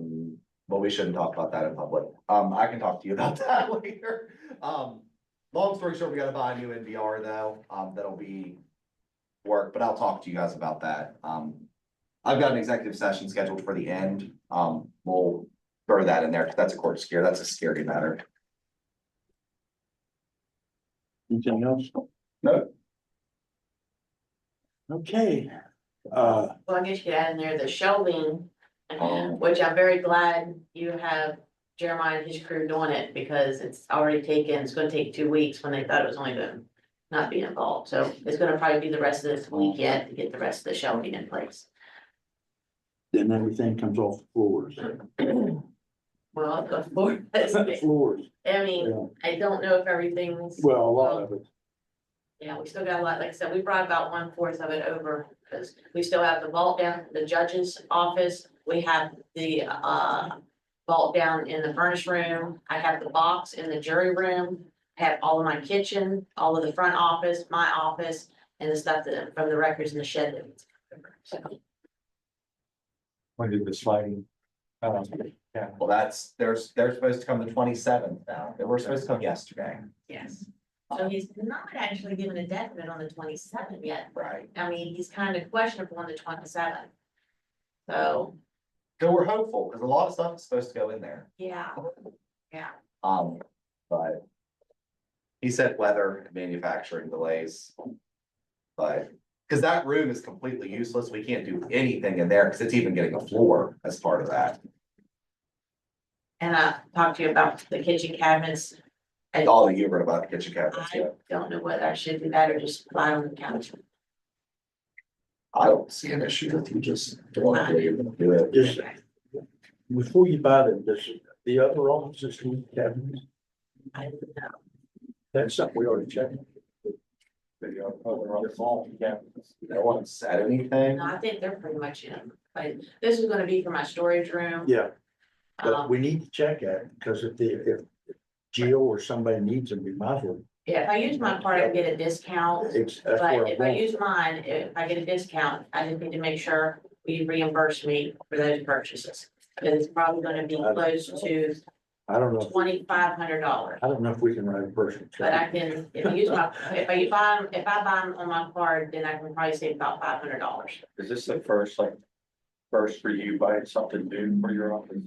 Mm, But we shouldn't talk about that in public. Um, I can talk to you about that later. Um, long story short, we gotta buy a new NVR though. Um, that'll be work, but I'll talk to you guys about that. Um, I've got an executive session scheduled for the end. Um, we'll throw that in there. 'cause That's a court scare. That's a scary matter. Anything else? No. Okay, uh, Well, I guess you add in there the shelving, Oh. which I'm very glad you have Jeremiah and his crew doing it because it's already taken, it's gonna take two weeks when they thought it was only gonna not be involved, so it's gonna probably be the rest of this week yet to get the rest of the shelving in place. then everything comes off the floors. Well, the floor, I Floors, mean, yeah. I don't know if everything's, Well, a lot of it. yeah, we still got a lot, like I said, we brought about one fourth of it over. Cause we still have the vault down, at the judge's office, we have the uh vault down in the furnace room. I have the box in the jury room, I have all of my kitchen, all of the front office, my office, and the stuff that from the records in the shed. that we took over. So, When did the sliding? um, Well, that's, there's, they're supposed to come the twenty-seventh now. They were supposed to come yesterday. Yes, so he's not actually given a definite on the twenty seventh yet, Right. I mean, he's kind of questionable on the twenty seventh. So, So we're hopeful, cause a lot of stuff is supposed to go in there. yeah, Um, but. He said weather and manufacturing delays. But, cause that room is completely useless, we can't do anything in there, cause it's even getting a floor as part of that. and I talked to you about the kitchen cabinets, And all the humor about the kitchen cabinets, I yeah, don't know whether I should do that or just lie on the couch. I don't see an issue with you just. throwing it away and do it. Just before you buy them, does the other offices need cabinets? I don't know. That's something we already checked. No one said anything, No, I think they're pretty much in, but this is gonna be for my storage room. Yeah, but Um, we need to check that because if the, if Jill or somebody needs them, we might as well. yeah, if I use my card, I can get a discount, It's, that's where I'm but if I going. use mine, if I get a discount, I just need to make sure we reimburse me for those purchases. Because it's probably gonna be close to I don't know, twenty-five hundred dollars, I don't know if we can write a personal but I check. can, if I use my, if I buy, 'em- if I buy them on my card, then I can probably save about five hundred dollars. Is this the first, like, first for you buying something new for your office?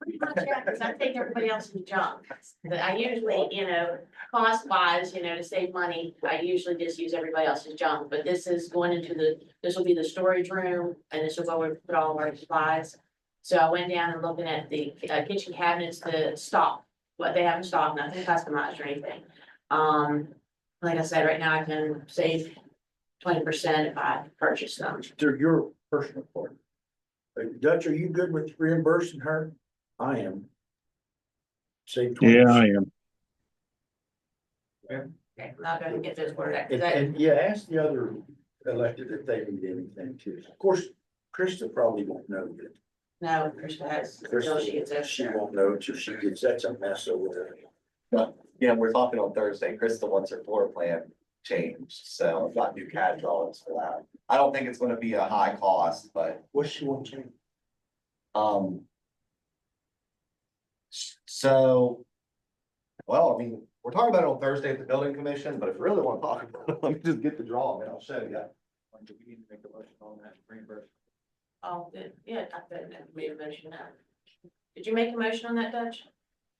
Pretty much, yeah, because I take everybody else's junk, but I usually, you know, cost wise, you know, to save money, I usually just use everybody else's junk, but this is going into the, this will be the storage room, and this is where we put all of our supplies. So I went down and looking at the uh, kitchen cabinets, the stock, what they have in stock, nothing customized or anything. Um, like I said, right now I can save twenty percent if I purchase them. Through your personal part. Uh, Dutch, are you good with reimbursing her? I am. Save twenty. Yeah, I am. Okay, I'm not gonna get those word out, 'cause And, I- and yeah, ask the other elected if they need anything too. Of course, Krista probably won't know yet. No, Krista has, until she gets Krista, that she won't know until she gets, that's a mess over there. yeah, we're talking on Thursday, Krista wants her floor plan changed, so I've got new CAD drawings for that. I don't think it's gonna be a high cost, but What's she want to? Um. s- So. Well, I mean, we're talking about it on Thursday at the building commission, but if you really want to talk about it, let me just get the drawing and I'll show you. Or Do we need to make a motion on that reimbursement? Oh, good. yeah, I bet that made a motion now. Did you make a motion on that, Dutch?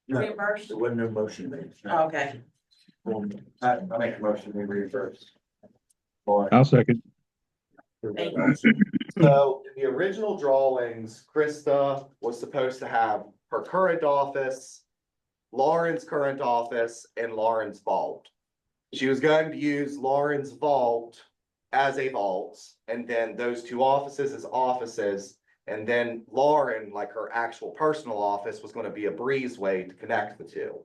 No. Reimbursed? There wasn't no motion made. Oh, Okay, Um, I, I make a motion, we reimburse. I'll second. thank you. So in the original drawings, Krista was supposed to have her current office. Lauren's current office and Lauren's vault. She was going to use Lauren's vault as a vault. And then those two offices as offices. And then Lauren, like her actual personal office, was gonna be a breezeway to connect the two.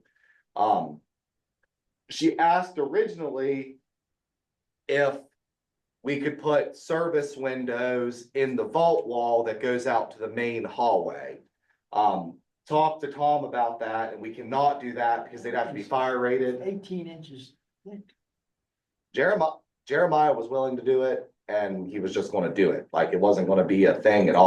Um. She asked originally. If we could put service windows in the vault wall that goes out to the main hallway. Um, talk to Tom about that, and we cannot do that because they'd have to be fire rated. Eighteen inches. thick. Jeremiah, Jeremiah was willing to do it. And he was just gonna do it, like it wasn't gonna be a thing at all.